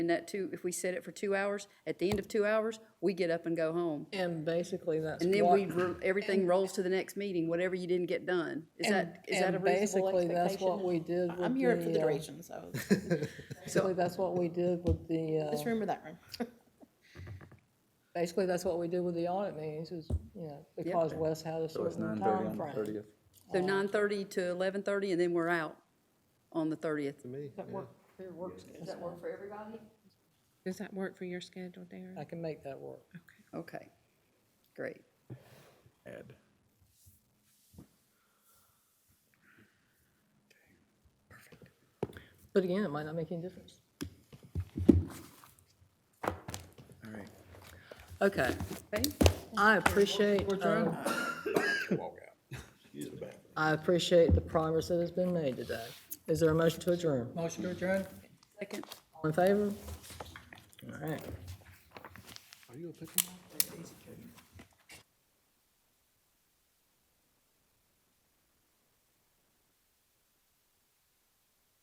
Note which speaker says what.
Speaker 1: in that two, if we set it for two hours, at the end of two hours, we get up and go home.
Speaker 2: And basically, that's
Speaker 1: And then we,
Speaker 2: what,
Speaker 1: ro- everything rolls to the next meeting, whatever you didn't get done. Is that, is that a
Speaker 2: and
Speaker 1: reasonable
Speaker 2: basically,
Speaker 1: expectation?
Speaker 2: that's what we did with the.
Speaker 3: I'm here for the
Speaker 2: uh,
Speaker 3: duration, so
Speaker 2: Basically, that's what we did with the,
Speaker 3: this
Speaker 2: uh,
Speaker 3: room or that room.
Speaker 2: basically, that's what we did with the audit meetings is, you know, because Wes had a
Speaker 4: So it's
Speaker 2: certain
Speaker 4: nine thirty on
Speaker 2: time
Speaker 4: the
Speaker 2: frame.
Speaker 4: thirtieth.
Speaker 1: So nine thirty to eleven thirty, and then we're out on the thirtieth. Does that work for everybody?
Speaker 5: Does that work for your schedule, Darren?
Speaker 2: I can make that work.
Speaker 1: Okay, great.
Speaker 4: Add.
Speaker 2: But again, it might not make any difference.
Speaker 4: All right.
Speaker 2: Okay,
Speaker 1: Okay,
Speaker 2: I appreciate, um, I appreciate the progress that has been made today. Is there a motion to adjourn?
Speaker 6: Motion to adjourn?
Speaker 1: second.
Speaker 2: All in favor? All right.